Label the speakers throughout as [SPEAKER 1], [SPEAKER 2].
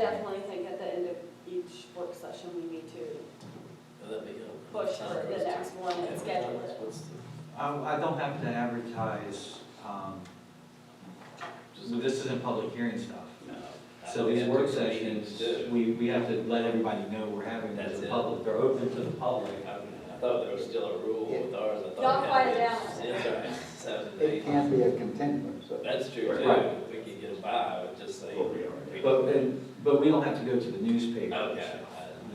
[SPEAKER 1] definitely think at the end of each work session, we need to
[SPEAKER 2] That'd be good.
[SPEAKER 1] push for the next one and schedule it.
[SPEAKER 2] What's the-
[SPEAKER 3] I, I don't have to advertise, um, this isn't public hearing stuff. So these work sessions,
[SPEAKER 2] uh,
[SPEAKER 3] we, we have to let everybody know we're having them to
[SPEAKER 2] That's
[SPEAKER 3] the
[SPEAKER 2] it.
[SPEAKER 3] public, they're open to the public.
[SPEAKER 2] I thought there was still a rule with ours, I thought.
[SPEAKER 1] Y'all quiet
[SPEAKER 2] it
[SPEAKER 1] down.
[SPEAKER 2] was- It's all right, seven,
[SPEAKER 4] It
[SPEAKER 2] eight.
[SPEAKER 4] can't be a continuum, so.
[SPEAKER 2] That's true too,
[SPEAKER 3] Right.
[SPEAKER 2] we could get by with just saying.
[SPEAKER 3] But, and, but we don't have to go to the newspaper.
[SPEAKER 2] Okay.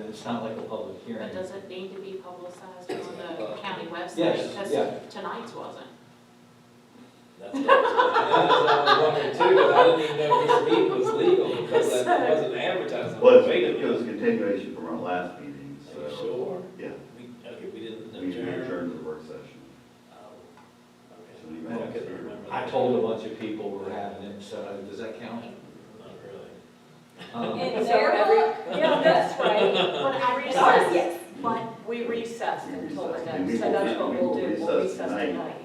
[SPEAKER 3] It's not like a public hearing.
[SPEAKER 5] But does it need to be publicized on the county website?
[SPEAKER 3] Yes, yeah.
[SPEAKER 5] Because tonight's wasn't.
[SPEAKER 2] That's what I was wondering too, because I didn't even know this meeting was legal, because that wasn't advertised.
[SPEAKER 6] Well, it's- it was a continuation from our last meeting,
[SPEAKER 2] Are you
[SPEAKER 6] so.
[SPEAKER 2] sure?
[SPEAKER 6] Yeah,
[SPEAKER 2] We, okay, we didn't
[SPEAKER 6] we
[SPEAKER 2] adjourn.
[SPEAKER 6] adjourned to the work session.
[SPEAKER 2] Oh,
[SPEAKER 6] So
[SPEAKER 2] okay.
[SPEAKER 6] we
[SPEAKER 2] Well, I
[SPEAKER 6] may-
[SPEAKER 2] couldn't remember.
[SPEAKER 3] I told a bunch of people we're having it, so uh, does that
[SPEAKER 2] Not
[SPEAKER 3] count?
[SPEAKER 2] really.
[SPEAKER 3] Um,
[SPEAKER 1] In
[SPEAKER 5] So
[SPEAKER 1] their
[SPEAKER 5] every-
[SPEAKER 1] book? Yeah, that's right.
[SPEAKER 5] But I
[SPEAKER 1] In ours,
[SPEAKER 5] recessed,
[SPEAKER 1] yes.
[SPEAKER 5] but we recessed
[SPEAKER 6] We
[SPEAKER 5] until the
[SPEAKER 6] recessed.
[SPEAKER 5] next,
[SPEAKER 6] We
[SPEAKER 5] so
[SPEAKER 6] will-
[SPEAKER 5] that's what
[SPEAKER 6] we
[SPEAKER 5] we'll
[SPEAKER 6] will
[SPEAKER 5] do, we'll
[SPEAKER 6] recess
[SPEAKER 5] recess
[SPEAKER 6] tonight.
[SPEAKER 5] tonight.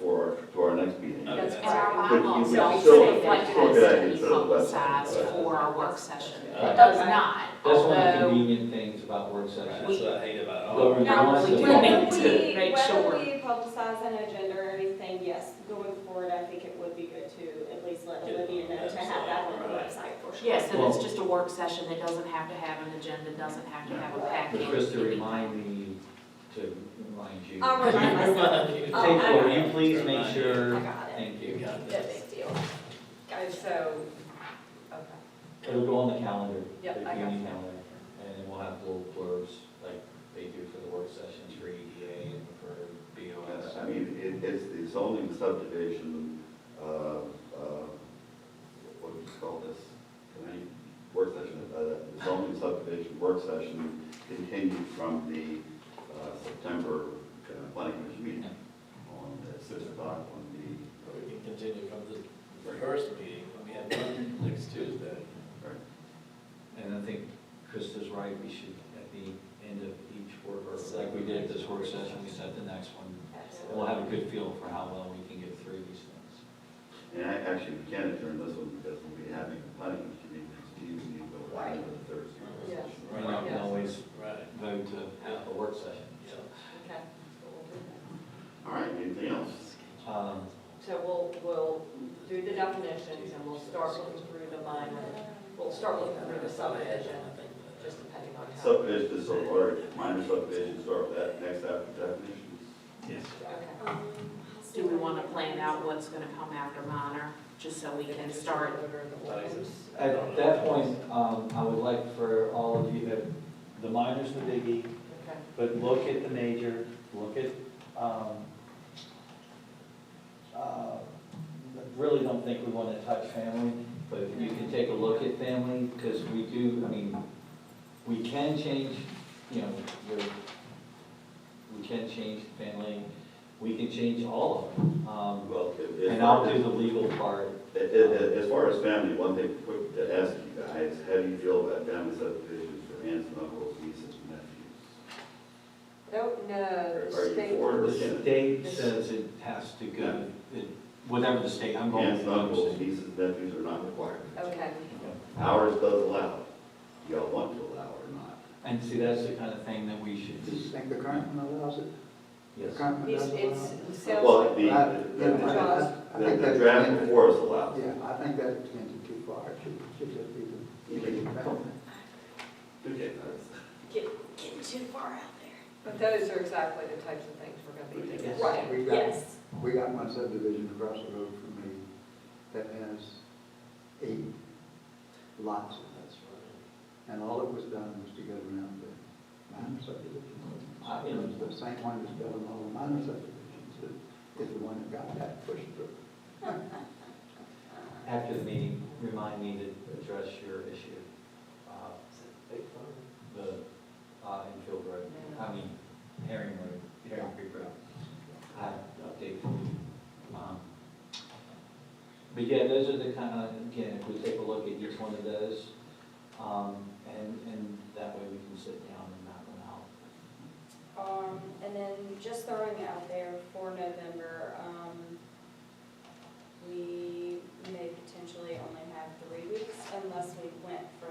[SPEAKER 6] For, to our next meeting.
[SPEAKER 2] Okay.
[SPEAKER 5] And our
[SPEAKER 6] But you
[SPEAKER 5] bylaws,
[SPEAKER 6] would
[SPEAKER 5] so we
[SPEAKER 6] still-
[SPEAKER 5] say what
[SPEAKER 6] still
[SPEAKER 5] has
[SPEAKER 6] get
[SPEAKER 5] to
[SPEAKER 6] it
[SPEAKER 5] be
[SPEAKER 6] instead of website.
[SPEAKER 5] publicized for our work session.
[SPEAKER 2] Right.
[SPEAKER 5] It does not,
[SPEAKER 3] That's one of the
[SPEAKER 5] although,
[SPEAKER 3] convenient things about work
[SPEAKER 2] That's
[SPEAKER 3] sessions.
[SPEAKER 2] what I hate about all.
[SPEAKER 3] But
[SPEAKER 2] of it.
[SPEAKER 5] No,
[SPEAKER 3] regardless
[SPEAKER 5] we
[SPEAKER 3] of-
[SPEAKER 5] do
[SPEAKER 1] Whether
[SPEAKER 5] need to
[SPEAKER 1] we-
[SPEAKER 5] make sure.
[SPEAKER 1] Whether we publicize an agenda or anything, yes, going forward, I think it would be good to at least let
[SPEAKER 2] Get it on
[SPEAKER 1] Olivia
[SPEAKER 2] the
[SPEAKER 1] know to
[SPEAKER 2] website,
[SPEAKER 1] have that on the
[SPEAKER 2] right.
[SPEAKER 1] website for sure.
[SPEAKER 5] yes, and it's just a work session, it doesn't have to have an agenda, doesn't have to have a packet.
[SPEAKER 3] But Krista, remind me to remind you.
[SPEAKER 1] I'll remind myself.
[SPEAKER 2] Take
[SPEAKER 3] Take,
[SPEAKER 1] Oh,
[SPEAKER 3] will you please make
[SPEAKER 1] I
[SPEAKER 3] sure,
[SPEAKER 1] got it.
[SPEAKER 3] thank you.
[SPEAKER 2] got
[SPEAKER 1] No
[SPEAKER 2] this.
[SPEAKER 1] big deal. Guys, so, okay.
[SPEAKER 3] It'll go on the calendar, the
[SPEAKER 1] Yep, I got
[SPEAKER 3] community
[SPEAKER 1] that.
[SPEAKER 3] calendar, and then we'll have little blurbs like they do for the work sessions for EDA and for BOS.
[SPEAKER 6] Uh, I mean, it, it's the zoning subdivision, uh, uh, what do you call this? Committee, work session, uh, zoning subdivision work session continued from the, uh, September uh, planning commission meeting on the six o'clock on the,
[SPEAKER 2] We can continue from the first meeting, we have one next Tuesday.
[SPEAKER 6] right,
[SPEAKER 3] And I think Krista's right, we should, at the end of each work, or like we did at this work session, we set the next one. And we'll have a good feel for how well we can get through these things.
[SPEAKER 6] And I, actually, we can adjourn this one because we'll be having a planning commission meeting next Tuesday, but we'll have it the Thursday.
[SPEAKER 1] Yes.
[SPEAKER 3] You know, we can always
[SPEAKER 2] Right,
[SPEAKER 3] vote to have a work session.
[SPEAKER 2] yeah.
[SPEAKER 1] Okay. So we'll do that.
[SPEAKER 6] All right, anything else?
[SPEAKER 3] Um,
[SPEAKER 7] So we'll, we'll do the definitions and we'll start looking through the minor, we'll start looking through the subdivision, just depending on how.
[SPEAKER 6] Subdivision, so, or minor subdivision, start with that next after definitions.
[SPEAKER 3] Yes.
[SPEAKER 7] Okay.
[SPEAKER 1] Um,
[SPEAKER 5] Do we want to plan out what's going to come after minor, just so we can start?
[SPEAKER 3] At that point, um, I would like for all of you, uh, the minor's the biggie,
[SPEAKER 7] Okay.
[SPEAKER 3] but look at the major, look at, um, uh, really don't think we want to touch family, but you can take a look at family, because we do, I mean, we can change, you know, your, we can change family, we can change all of them. Um,
[SPEAKER 6] Well, it- it-
[SPEAKER 3] And I'll do the legal part,
[SPEAKER 6] it- it- it- As far as family, one thing quick to ask you guys, how do you feel about family subdivisions for aunts and uncles, nieces and nephews?
[SPEAKER 1] Oh,
[SPEAKER 7] No, no,
[SPEAKER 6] Are
[SPEAKER 7] the
[SPEAKER 6] are
[SPEAKER 7] state,
[SPEAKER 6] you for or
[SPEAKER 3] The
[SPEAKER 6] against?
[SPEAKER 3] state says it has to go, it- whatever the state, I'm going
[SPEAKER 6] Aunts
[SPEAKER 3] with
[SPEAKER 6] and
[SPEAKER 3] the
[SPEAKER 6] uncles,
[SPEAKER 3] state.
[SPEAKER 6] nieces and nephews are not required.
[SPEAKER 7] okay,
[SPEAKER 6] Ours does allow, it. y'all want to allow it or not.
[SPEAKER 3] And see, that's the kind of thing that we should
[SPEAKER 4] Do you
[SPEAKER 3] just,
[SPEAKER 4] think the current one allows it? The
[SPEAKER 3] yes.
[SPEAKER 4] current one
[SPEAKER 7] it's,
[SPEAKER 4] does allow
[SPEAKER 7] it's,
[SPEAKER 4] it?
[SPEAKER 7] it sounds
[SPEAKER 6] Well,
[SPEAKER 7] like,
[SPEAKER 6] the,
[SPEAKER 4] I-
[SPEAKER 6] the-
[SPEAKER 4] yeah, I- I- I
[SPEAKER 6] the,
[SPEAKER 4] think
[SPEAKER 6] the
[SPEAKER 4] that's
[SPEAKER 6] draft
[SPEAKER 4] extended.
[SPEAKER 6] before us allows. it.
[SPEAKER 4] Yeah, I think that extended too far, it should, should just be the,
[SPEAKER 6] You
[SPEAKER 4] legal
[SPEAKER 6] think-
[SPEAKER 4] development.
[SPEAKER 6] Okay.
[SPEAKER 1] Getting too far out there.
[SPEAKER 7] but those are exactly the types of things we're gonna be looking at.
[SPEAKER 1] Right,
[SPEAKER 4] We got-
[SPEAKER 1] yes.
[SPEAKER 4] We got one subdivision across the road from me that has eight lots of that sort. And all it was done was to get around the minor subdivision.
[SPEAKER 3] I-
[SPEAKER 6] Ah,
[SPEAKER 3] you know,
[SPEAKER 4] It was the same one that's building all the minor subdivisions, that is the one that got that pushed through.
[SPEAKER 3] After the meeting, remind me to address your issue, uh, the, uh, Enfield Road, I mean, Herring Road, Herring Creek Road. I update for you. Um, But yeah, those are the kind of, again, if we take a look at each one of those, um, and, and that way we can sit down and map them out.
[SPEAKER 1] Um, and then just throwing it out there for November, um, we may potentially only have three weeks unless we went for